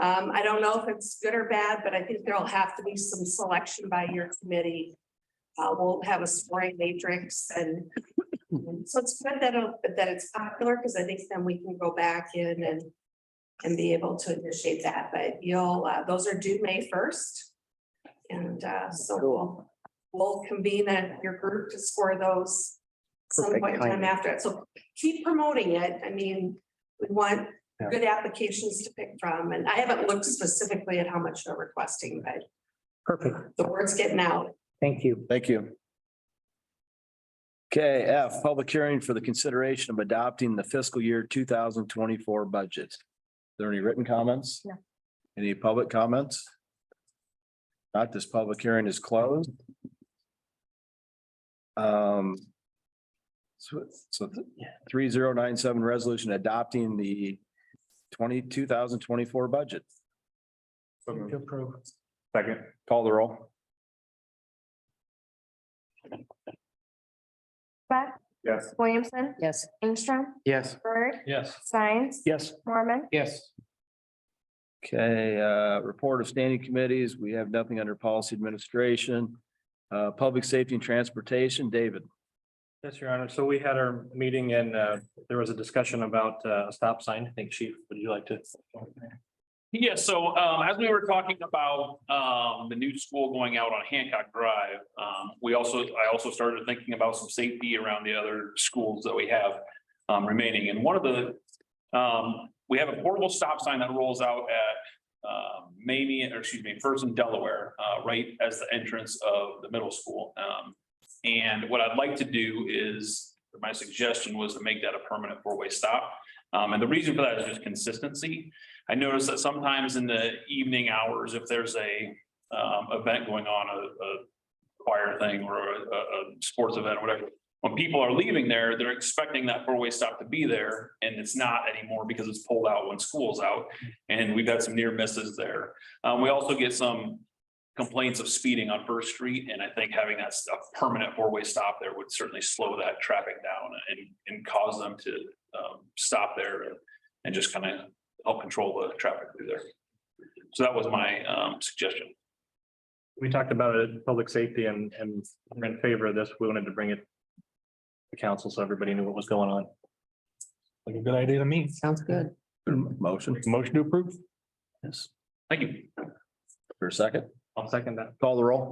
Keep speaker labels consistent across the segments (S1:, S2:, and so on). S1: Um, I don't know if it's good or bad, but I think there'll have to be some selection by your committee. Uh, we'll have a scoring matrix and and so it's good that, uh, that it's popular because I think then we can go back in and and be able to initiate that, but you'll, uh, those are due May first. And, uh, so we'll, we'll convene at your group to score those some
S2: Perfect
S1: point in time
S2: timing.
S1: after it. So keep promoting it. I mean, we want
S2: Yeah.
S1: good applications to pick from, and I haven't looked specifically at how much they're requesting, but
S2: Perfect.
S1: the word's getting out.
S2: Thank you.
S3: Thank you. Okay, F, public hearing for the consideration of adopting the fiscal year two thousand twenty-four budget. Are There any written comments?
S1: No.
S3: Any public comments? Not this public hearing is closed. Um. So, so three zero nine seven resolution adopting the twenty, two thousand twenty-four budget.
S2: approve.
S3: Second. Call the roll.
S4: Beth
S3: Yes.
S4: Williamson,
S5: Yes.
S4: Ingstrom,
S2: Yes.
S4: Bird,
S3: Yes.
S4: Science,
S2: Yes.
S4: Mormon,
S2: Yes.
S3: Okay, uh, report of standing committees. We have nothing under policy administration. Uh, public safety and transportation, David.
S6: Yes, Your Honor. So we had our meeting and uh, there was a discussion about uh, a stop sign. I think Chief, would you like to?
S7: Yeah, so um as we were talking about um the new school going out on Hancock Drive, um we also, I also started thinking about some safety around the other schools that we have um remaining, and one of the um, we have a portable stop sign that rolls out at uh Mamie, or excuse me, First and Delaware, uh right as the entrance of the middle school. Um and what I'd like to do is, my suggestion was to make that a permanent four-way stop. Um and the reason for that is just consistency. I notice that sometimes in the evening hours, if there's a um event going on, a a choir thing or a a- a sports event or whatever. When people are leaving there, they're expecting that four-way stop to be there and it's not anymore because it's pulled out when school's out. And we've had some near misses there. Um, we also get some complaints of speeding on First Street and I think having that s- a permanent four-way stop there would certainly slow that traffic down and and cause them to um stop there and- and just kind of help control the traffic through there. So that was my um suggestion.
S6: We talked about it, at public safety and and we're in favor of this. We wanted to bring it to council so everybody knew what was going on.
S8: Like a good idea to me.
S5: Sounds good.
S3: Motion
S8: Motion to approve?
S7: Thank you.
S3: for a second.
S6: I'll second that.
S3: Call the roll.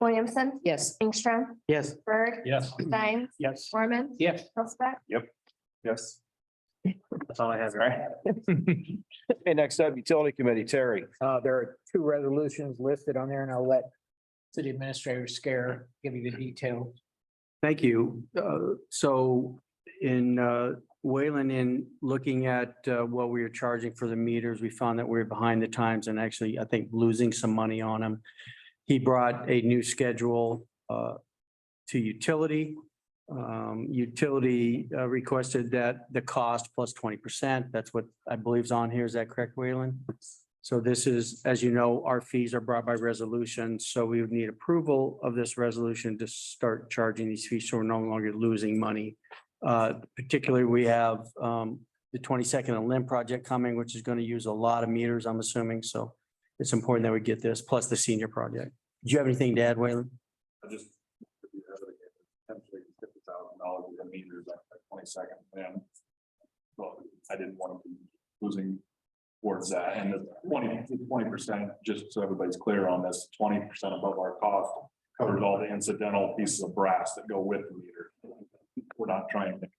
S4: Williamson,
S5: Yes.
S4: Ingstrom,
S2: Yes.
S4: Bird,
S6: Yes.
S4: Science,
S8: Yes.
S4: Mormon,
S2: Yes.
S4: Hilstback,
S3: Yes.
S6: That's all I have. Your Honor.
S3: Okay, next up, utility committee, Terry.
S2: Uh, there are two resolutions listed on there and I'll let city administrator Scare give you the details.
S9: Thank you. Uh, So in uh, Wayland, in looking at uh, what we were charging for the meters, we found that we were behind the times and actually, I think, losing some money on them. He brought a new schedule uh, to utility. Um, Utility uh, requested that the cost plus twenty percent. That's what I believe is on here. Is that correct, Wayland? So this is, as you know, our fees are brought by resolution, so we would need approval of this resolution to start charging these fees, so we're no longer losing money. Uh, particularly, we have, um, the twenty-second and Lim project coming, which is gonna use a lot of meters, I'm assuming, so it's important that we get this, plus the senior project. Do you have anything to add, Wayland?
S7: I just. Potentially fifty thousand dollars with the meters at twenty second and. Well, I didn't want to be losing towards that and the 20 percent, just so everybody's clear on this, twenty percent above our cost. Covers all the incidental pieces of brass that go with the meter. We're not trying to. make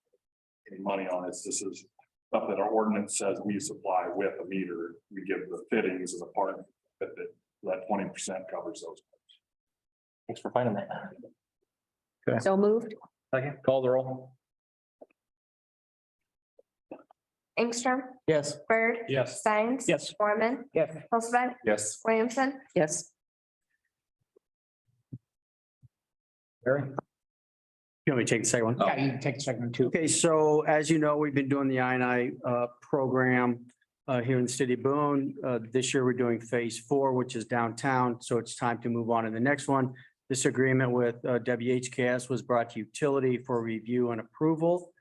S7: Any money on this, this is stuff that our ordinance says we supply with a meter, we give the fittings as a part of it, but that twenty percent covers those.
S6: Thanks for finding that.
S5: So moved?
S6: Second.
S3: Call the roll.
S4: Ingstrom,
S2: Yes.
S4: Bird,
S6: Yes.
S4: Science.
S2: Yes.
S4: Mormon,
S2: Yes.
S4: Hilstback,
S7: Yes.
S4: Williamson,
S5: Yes.
S3: Terry.
S9: You want me to take the second one?
S2: Yeah, you can take the second one too.
S9: Okay, so as you know, we've been doing the I and I uh, program uh, here in the city of Boone. Uh, This year, we're doing phase four, which is downtown, so it's time to move on to the next one. This agreement with uh, WHKS was brought to utility for review and approval.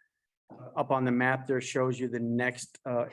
S9: Uh, Up on the map there shows you the next uh,